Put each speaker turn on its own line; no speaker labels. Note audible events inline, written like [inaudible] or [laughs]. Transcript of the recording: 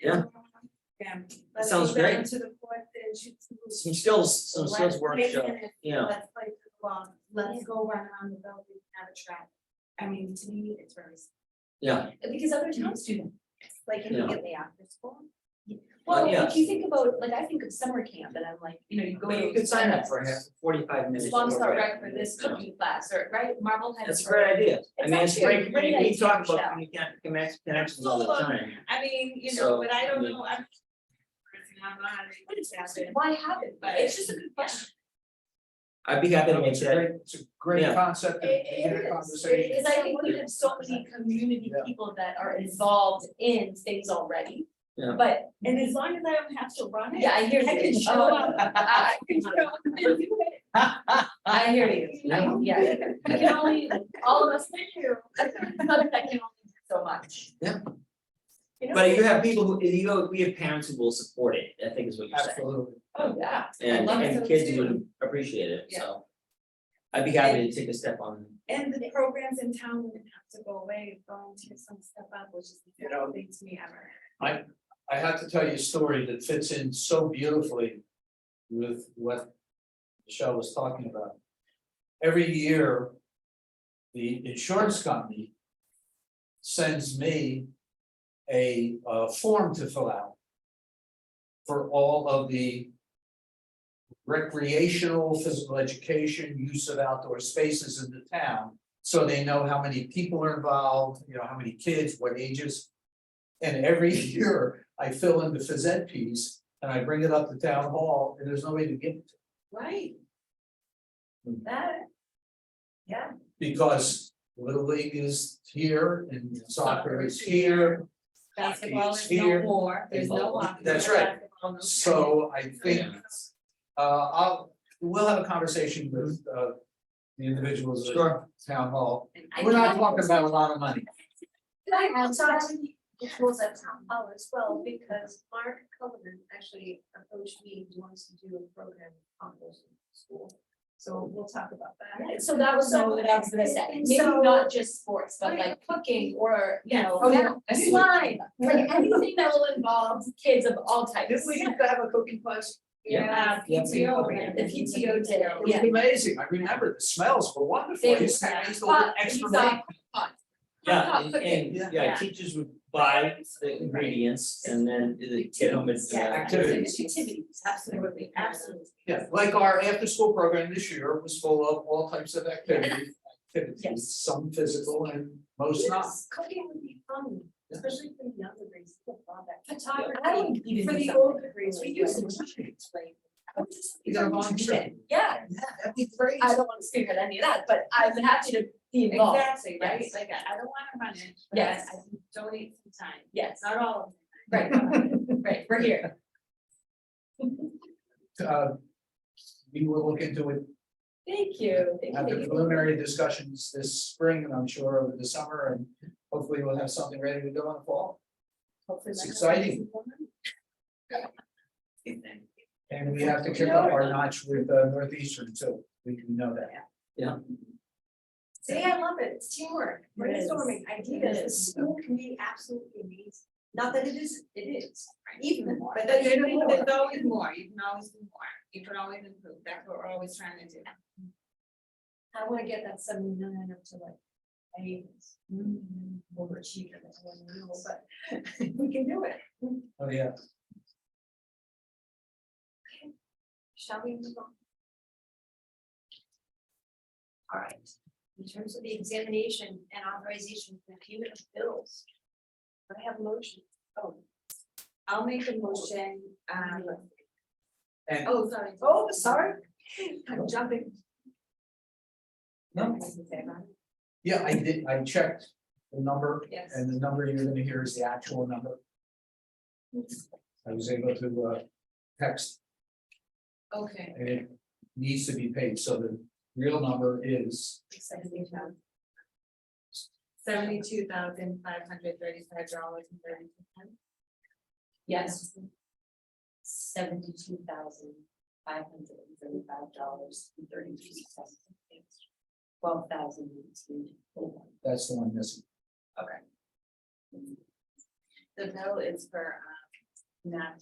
Yeah.
Yeah.
That sounds
Let's go down
great.
To the fourth and shoot some.
some skills, some skills workshop, yeah.
Let's play football, let's go run around the building, and have a track. I mean, to me, it's very.
Yeah.
Because other towns do them, like
Yeah.
immediately after school.
Well, yeah.
you think about, like, I think of summer camp and I'm like, you know, you
I mean, you could sign up for a half- forty-five minutes. or whatever.
class or, right, Marblehead.
That's a great idea. I
It's
mean, it's
actually a
great, we,
great
we
idea,
talk about
Michelle.
communication, connect- connections all the
Full of-
time.
I mean, you
So,
know, but I
I
don't
mean-
know, I'm. I don't know how to put it faster. Why have it? But it's just a good question.
I'd be happy to make
It's a
that,
great, it's a great
Yeah.
concept. to
It-
begin a
it is,
conversation.
because I think we have so many community
Yeah.
people that are involved in things already.
Yeah.
But. And as long as I don't have to run it. [laughs] Yeah, I hear you.
I can show
Oh,
up.
I- [laughs] I can show up and do it.
[laughs]
I hear you.
Yeah.
[laughs]
Yeah.
I can only, all of us, thank you. [laughs] I can only do so much.
Yeah.
You know?
but you have people who, you know, we have parents who will support it, I think is what you're saying.
Absolutely.
Oh, yeah.
And
love
and
those
kids
too.
would appreciate it,
Yeah.
so. I'd be happy to take a step on,
And the programs in town wouldn't have to go away, volunteer some stuff up, which is the
You know-
best thing to me ever.
I have to tell you a story that fits in so beautifully with what Michelle was talking about. Every year, the insurance company sends me a uh form to fill out for all of the recreational, physical education, use of outdoor spaces in the town. So they know how many people are involved, you know, how many kids, what ages. And every [laughs] year I fill in the phys ed piece and I bring it up to town hall and there's no way to get it.
Right. That. Yeah.
Because Little League is here and soccer is here.
Basketball is
Here.
no more, there's no lock.
That's right. So I think, uh, I'll, we'll have a conversation with, uh, the individuals at
Sure.
town hall. We're not talking about a lot of money.
I outside the schools at town hall as well, because Mark Cullinan actually approached me, he wants to do a program on those in school. So we'll talk about that.
So that was
So-
what I was gonna say, maybe
So-
not just sports, but
Right.
like cooking or, you know.
Oh, yeah.
Slime, like anything that will involve kids of all types.
used to have a cooking class.
Yeah.
Yeah, uh, PTO,
The PTO did it,
It was
yeah.
amazing. I remember the smells were wonderful.
They
I used to
were-
I used to order extra.
But-
bacon.
yeah,
Hot
and
cooking.
and,
Yeah.
yeah,
Yeah.
teachers would buy the ingredients and then the kid home and.
Yeah.
Activities.
Activities, absolutely, absolutely.
Yeah, like our after-school program this year was full of all types of activities,
Yes.
activities, some physical and most not.
Yes, cooking would be fun, especially for the younger grades, people love that.
I would
Photography,
even
for
do
the
something.
older grades, we used to.
You got a volunteer.
Yeah,
that'd be great.
I don't wanna speak at any of that, but I'm happy to be involved,
Exactly, right,
Yes.
like, I I don't wanna run it, but I
Yes.
can donate some time,
yes,
it's not all of it.
[laughs] right, right, we're here,
Uh, we will look into it,
thank you, thank you.
have the preliminary discussions this spring and I'm sure over the summer and hopefully we'll have something ready to go in the fall.
Hopefully
It's
that-
exciting. And we have to kick up our notch with uh, Northeastern too, we do know that.
See, I love it, it's teamwork,
It is.
brainstorming, ideas,
It
the
is.
school can be absolutely amazing. Not that it is, it is, even more.
But then you know there's
always more, you can always do more, you can always improve, that's what we're always trying to do. I wanna get that seventy million up to like, I mean, overachieve it, that's one rule, but [laughs] we can do it.
Oh, yeah.
Shall we move on? All right, in terms of the examination and authorization for payment of bills. Do I have a motion? Oh. I'll make a motion, um.
And-
Oh, sorry. Oh, sorry. I'm jumping.
No. Yeah, I did, I checked the number
Yes.
And the number you're gonna hear is the actual number. I was able to uh text
Okay.
and it needs to be paid, so the real number is.
Seventy-two thousand five hundred thirty-five dollars and thirty-two cents.
Yes. Seventy-two thousand five hundred and thirty-five dollars and thirty-three cents. Twelve thousand eighteen.
That's the one missing.
The bill is for, um,
not